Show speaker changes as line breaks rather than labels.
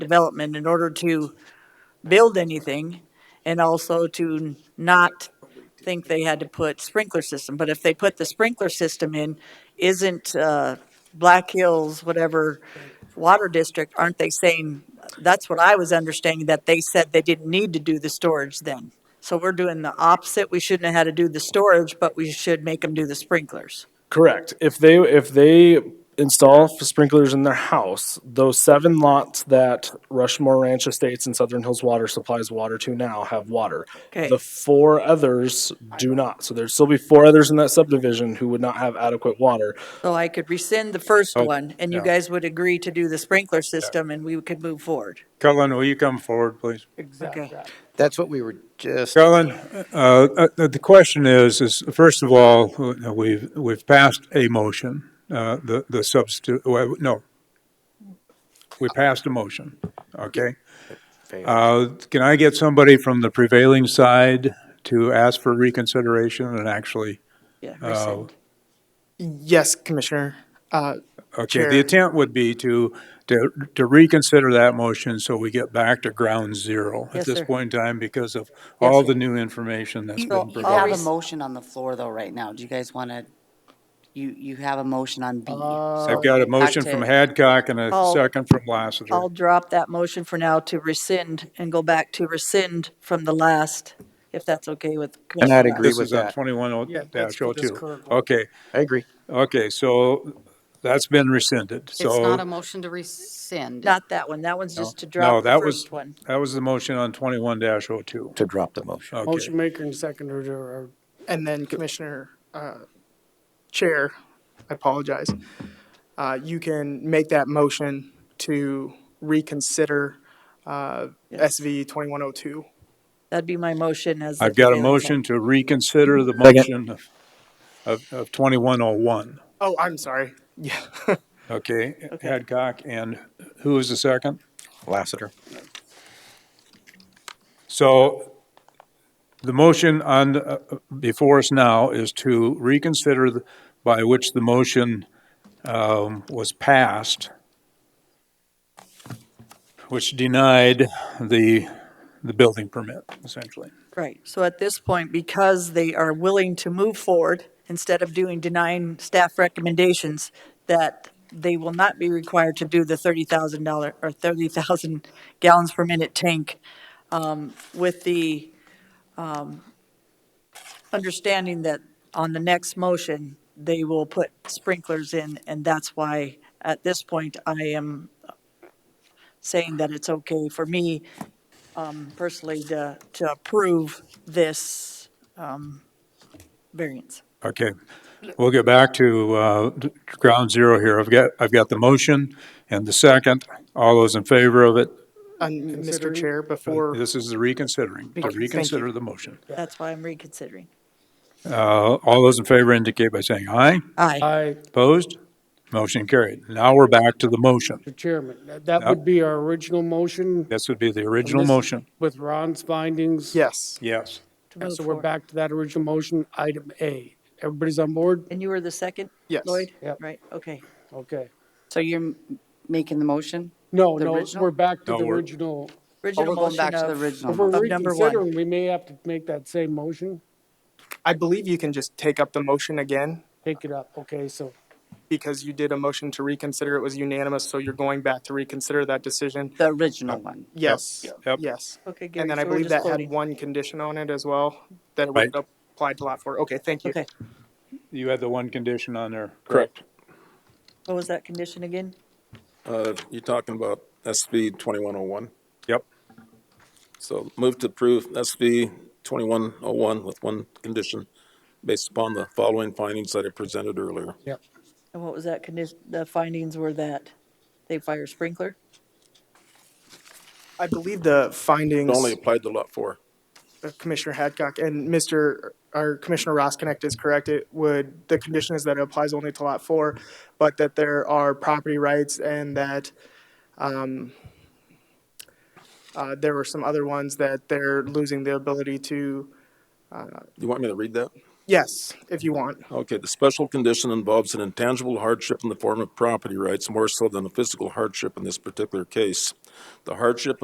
development in order to build anything and also to not think they had to put sprinkler system. But if they put the sprinkler system in, isn't uh, Black Hills, whatever, water district, aren't they saying, that's what I was understanding, that they said they didn't need to do the storage then. So we're doing the opposite. We shouldn't have had to do the storage, but we should make them do the sprinklers.
Correct. If they, if they install sprinklers in their house, those seven lots that Rushmore Ranch Estates and Southern Hills Water supplies water to now have water.
Okay.
The four others do not. So there'd still be four others in that subdivision who would not have adequate water.
So I could rescind the first one, and you
yeah.
guys would agree to do the sprinkler system, and we could move forward.
Cullen, will you come forward, please?
Okay.
That's what we were just,
Cullen, uh, uh, the question is, is first of all, uh, we've, we've passed a motion, uh, the, the substitute, well, no. We passed a motion, okay? Uh, Can I get somebody from the prevailing side to ask for reconsideration and actually?
Yeah,
uh,
rescind.
Yes, Commissioner. Uh,
Okay, the
Chair.
attempt would be to, to, to reconsider that motion so we get back to ground zero
Yes,
at this
sir.
point in time because of
Yes,
all
sir.
the new information that's
You
been
you
provided.
have a motion on the floor though right now. Do you guys want to, you, you have a motion on B.
I've got a motion from Hadcock and a
I'll-
second from Lassiter.
I'll drop that motion for now to rescind and go back to rescind from the last, if that's okay with. Commissioner
I'd
Brown.
agree
This
with
is on
that.
twenty-one oh
Yeah, that's for this current one.
Okay,
I agree.
okay, so that's been rescinded, so.
It's not a motion to rescind.
Not that one. That one's just to
No,
drop the
that was-
first one.
That was the motion on twenty-one dash oh two.
To drop the motion.
Okay,
Motion maker and seconder are,
And then Commissioner, uh, Chair, I apologize. Uh, you can make that motion to reconsider, uh, SV 2102.
That'd be my motion as. the
I've got a
prevailing one.
motion to reconsider the motion of, of, of twenty-one oh one.
Oh, I'm sorry. Yeah.
Okay, Hadcock, and who was the second?
Lassiter.
So the motion on, uh, before us now is to reconsider the- by which the motion um, was passed, which denied the, the building permit, essentially.
Right. So at this point, because they are willing to move forward, instead of doing denying staff recommendations, that they will not be required to do the thirty thousand dollar or thirty thousand gallons per minute tank um, with the um, understanding that on the next motion, they will put sprinklers in, and that's why at this point, I am saying that it's okay for me personally to, to approve this um, variance.
Okay, we'll get back to uh, d- ground zero here. I've got, I've got the motion and the second. All those in favor of it,
And Mr. Chair, before.
this is the reconsidering, to
Thank you.
reconsider the motion.
That's why I'm reconsidering.
Uh, All those in favor indicate by saying aye.
Aye.
I,
Opposed? Motion carried. Now we're back to the motion.
the chairman, that- that would be our original motion.
This would be the original
This-
motion.
With Ron's findings.
Yes.
Yes.
to move
So we're
forward.
back to that original motion, item A. Everybody's on board?
And you were the second?
Yes.
Lloyd?
Yep.
Right,
Oh,
okay.
Okay.
So you're m- making the motion?
No,
The
no,
original?
we're back to
No,
the
we're-
original.
Oh,
Original
we're going
motion
back to
of,
the
If
original.
we're
motion.
Of number one.
reconsidering, we may have to make that same motion,
I believe you can just take up the motion again
take it up. Okay, so
because you did a motion to reconsider. It was unanimous, so you're going back to reconsider that decision.
The original
Uh,
one.
Yes,
Yep.
yes.
okay,
And
Gary,
then I
so we're
believe
just
that had
voting.
one condition on it as well, that it would
Right.
apply to lot four. Okay, thank you.
Okay,
You had the one condition on there.
Correct.
what was that condition again?
Uh, You're talking about SB 2101.
Yep.
So move to approve SB 2101 with one condition based upon the following findings that I presented earlier.
And what was that condition, the findings were that they fire sprinkler?
I believe the
It
findings,
Only applied to Lot 4.
of Commissioner Hadcock and Mr., or Commissioner Ross Connect is correct. It would, the condition is that it applies only to lot four, but that there are property rights and that um, uh, there were some other ones that they're losing the ability to, uh,
You want me to read that?
Yes, if you want.
Okay, the special condition involves an intangible hardship in the form of property rights more so than a physical hardship in this particular case. The hardship